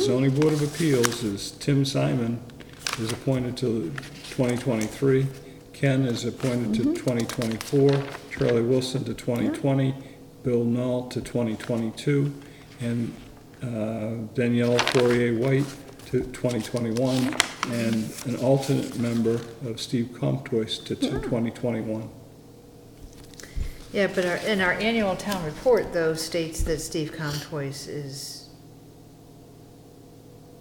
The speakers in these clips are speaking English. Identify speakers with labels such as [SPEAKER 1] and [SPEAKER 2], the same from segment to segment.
[SPEAKER 1] zoning board of appeals is Tim Simon is appointed to 2023. Ken is appointed to
[SPEAKER 2] Mm-hmm.
[SPEAKER 1] 2024. Charlie Wilson to 2020. Bill Knoll to 2022. And uh, Danielle Fourier White to 2021. And an alternate member of Steve Comtois to 2021.
[SPEAKER 3] Yeah, but our, in our annual town report, though, states that Steve Comtois is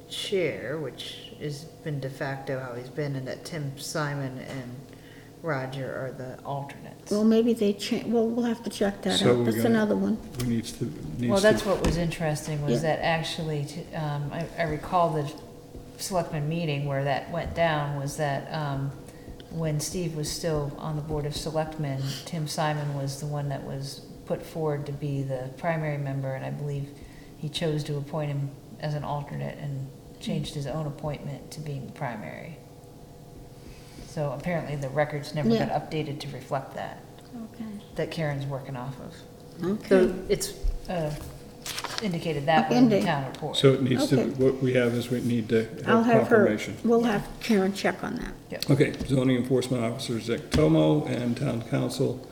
[SPEAKER 3] chair, which has been de facto how he's been, and that Tim Simon and Roger are the alternates.
[SPEAKER 2] Well, maybe they cha, well, we'll have to check that
[SPEAKER 1] So
[SPEAKER 2] out.
[SPEAKER 1] we're
[SPEAKER 2] That's
[SPEAKER 1] gonna-
[SPEAKER 2] another one.
[SPEAKER 1] We needs to,
[SPEAKER 3] Well,
[SPEAKER 1] needs
[SPEAKER 3] that's
[SPEAKER 1] to,
[SPEAKER 3] what was interesting, was that actually, t- um, I, I recall the selectmen meeting where that went down, was that, um, when Steve was still on the Board of Selectmen, Tim Simon was the one that was put forward to be the primary member, and I believe he chose to appoint him as an alternate and changed his own appointment to being primary. So apparently the records never got
[SPEAKER 2] Yeah.
[SPEAKER 3] updated to reflect that,
[SPEAKER 2] Okay.
[SPEAKER 3] that Karen's working off of.
[SPEAKER 2] Okay.
[SPEAKER 3] So it's uh, indicated that way in the
[SPEAKER 2] Ending.
[SPEAKER 3] town report.
[SPEAKER 1] so it needs to,
[SPEAKER 2] Okay.
[SPEAKER 1] what we have is we need to
[SPEAKER 2] I'll
[SPEAKER 1] have
[SPEAKER 2] have her,
[SPEAKER 1] confirmation.
[SPEAKER 2] we'll have Karen check on that.
[SPEAKER 1] Okay, zoning enforcement officer Zach Tomo and town council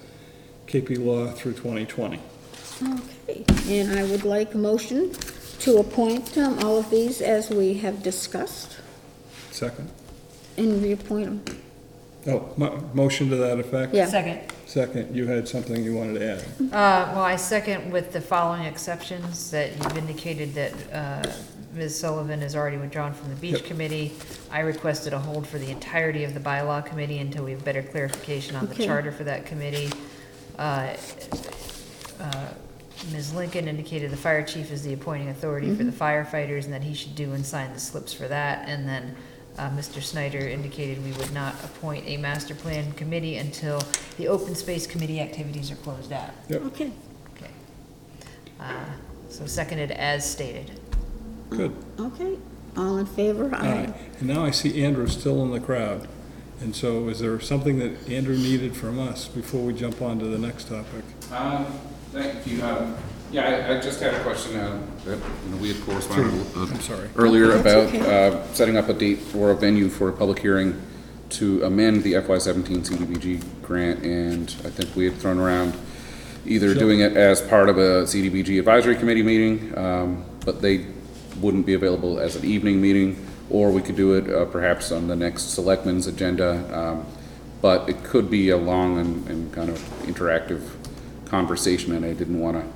[SPEAKER 1] KP Law through 2020.
[SPEAKER 2] Okay, and I would like a motion to appoint um, all of these as we have discussed
[SPEAKER 1] Second?
[SPEAKER 2] and reappoint them.
[SPEAKER 1] Oh, mo- motion to that effect?
[SPEAKER 2] Yeah.
[SPEAKER 3] Second.
[SPEAKER 1] Second, you had something you wanted to add.
[SPEAKER 3] Uh, Well, I second with the following exceptions, that you've indicated that uh, Ms. Sullivan is already withdrawn from the beach
[SPEAKER 1] Yep.
[SPEAKER 3] committee. I requested a hold for the entirety of the bylaw committee until we have better clarification on the
[SPEAKER 2] Okay.
[SPEAKER 3] charter for that committee. Uh, uh, Ms. Lincoln indicated the fire chief is the appointing authority for the firefighters, and that he should do and sign the slips for that. And then uh, Mr. Snyder indicated we would not appoint a master plan committee until the open space committee activities are closed out.
[SPEAKER 2] Okay,
[SPEAKER 3] Okay. Uh, So seconded as stated.
[SPEAKER 1] Good.
[SPEAKER 2] okay, all in favor?
[SPEAKER 1] Aye. And now I see Andrew still in the crowd. And so is there something that Andrew needed from us before we jump on to the next topic?
[SPEAKER 4] Um, Thank you. Um, Yeah, I- I just had a question uh, that you know, we had corresponded uh,
[SPEAKER 1] I'm sorry.
[SPEAKER 4] earlier
[SPEAKER 2] That's
[SPEAKER 4] about
[SPEAKER 2] okay.
[SPEAKER 4] uh, setting up a date for a venue for a public hearing to amend the FY17 CDBG grant, and I think we had thrown around either doing it as part of a CDBG advisory committee meeting, um, but they wouldn't be available as an evening meeting, or we could do it uh, perhaps on the next selectmen's agenda. um, But it could be a long and and kind of interactive conversation, and I didn't want to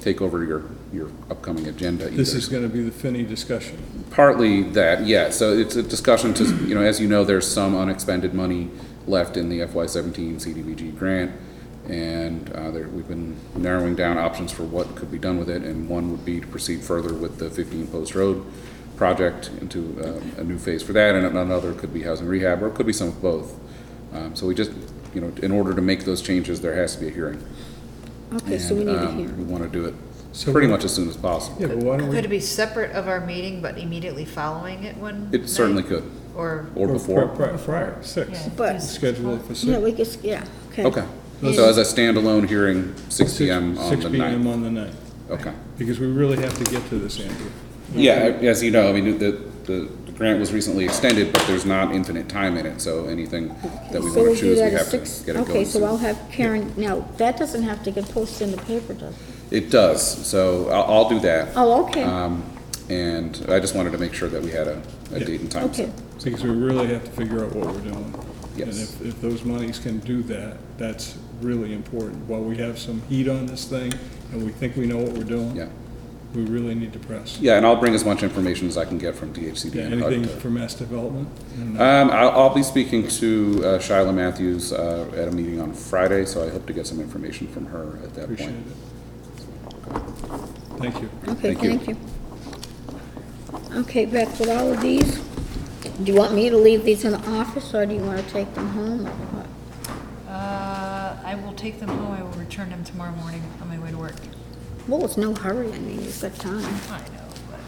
[SPEAKER 4] take over your your upcoming agenda either.
[SPEAKER 1] This is going to be the Finney discussion.
[SPEAKER 4] Partly that, yeah, so it's a discussion to, you know, as you know, there's some unexpended money left in the FY seventeen CDBG grant, and, uh, there, we've been narrowing down options for what could be done with it, and one would be to proceed further with the fifteen Post Road project into, um, a new phase for that, and another could be housing rehab, or it could be some of both. Um, so we just, you know, in order to make those changes, there has to be a hearing.
[SPEAKER 2] Okay, so we need a
[SPEAKER 4] And, um, We
[SPEAKER 2] hearing.
[SPEAKER 4] wanna do it
[SPEAKER 1] So
[SPEAKER 4] pretty
[SPEAKER 1] we-
[SPEAKER 4] much as soon as possible.
[SPEAKER 1] Yeah, but why don't
[SPEAKER 3] Could it
[SPEAKER 1] we,
[SPEAKER 3] be separate of our meeting, but immediately following it one
[SPEAKER 4] It certainly
[SPEAKER 3] night?
[SPEAKER 4] could,
[SPEAKER 3] Or,
[SPEAKER 4] or
[SPEAKER 1] or
[SPEAKER 4] before.
[SPEAKER 1] pri- pri- prior, six.
[SPEAKER 3] yeah.
[SPEAKER 2] But-
[SPEAKER 3] just-
[SPEAKER 1] Schedule it for
[SPEAKER 2] Yeah,
[SPEAKER 1] six.
[SPEAKER 2] we just, yeah, okay.
[SPEAKER 4] Okay, so as a standalone hearing, six
[SPEAKER 1] six-
[SPEAKER 4] PM on
[SPEAKER 1] Six
[SPEAKER 4] the
[SPEAKER 1] PM
[SPEAKER 4] ninth?
[SPEAKER 1] on the ninth.
[SPEAKER 4] Okay.
[SPEAKER 1] Because we really have to get to this, Andrew.
[SPEAKER 4] Yeah, I- as you know, I mean, the, the the grant was recently extended, but there's not infinite time in it, so anything that we
[SPEAKER 2] So
[SPEAKER 4] want
[SPEAKER 2] we'll do
[SPEAKER 4] to choose, we
[SPEAKER 2] that at
[SPEAKER 4] have to
[SPEAKER 2] six.
[SPEAKER 4] get it
[SPEAKER 2] Okay,
[SPEAKER 4] going
[SPEAKER 2] so I'll
[SPEAKER 4] soon.
[SPEAKER 2] have Karen, now, that doesn't have to get posted in the paper, does it?
[SPEAKER 4] It does, so I'll, I'll do that.
[SPEAKER 2] Oh, okay,
[SPEAKER 4] Um, And I just wanted to make sure that we had a, a
[SPEAKER 1] Yeah.
[SPEAKER 4] date and time. set.
[SPEAKER 2] okay,
[SPEAKER 1] Because we really have to figure out what we're doing. And
[SPEAKER 4] Yes.
[SPEAKER 1] if, if those monies can do that, that's really important. While we have some heat on this thing, and we think we know what we're doing.
[SPEAKER 4] Yeah,
[SPEAKER 1] We really need to press.
[SPEAKER 4] yeah, and I'll bring as much information as I can get from DHCD.
[SPEAKER 1] Yeah,
[SPEAKER 4] and HUD
[SPEAKER 1] Anything
[SPEAKER 4] to-
[SPEAKER 1] for mass development? And, uh,
[SPEAKER 4] Um, I'll, I'll be speaking to uh, Shyla Matthews uh, at a meeting on Friday, so I hope to get some information from her at that
[SPEAKER 1] Appreciate
[SPEAKER 4] point.
[SPEAKER 1] it. Thank you.
[SPEAKER 2] okay,
[SPEAKER 4] Thank you.
[SPEAKER 2] thank you. Okay, Beth, with all of these, do you want me to leave these in the office, or do you want to take them home, or what?
[SPEAKER 3] uh, I will take them home, I will return them tomorrow morning on my way to work.
[SPEAKER 2] Well, it's no hurry, I mean, you've got time.
[SPEAKER 3] I know, but.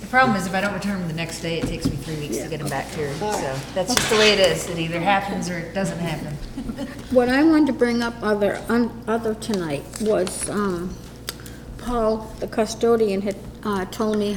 [SPEAKER 3] The problem is if I don't return them the next day, it takes me three weeks to get them back here, so that's just the way it is. It either happens or it doesn't happen.
[SPEAKER 2] What I wanted to bring up other, on, other tonight was, um, Paul, the custodian, had, uh, told me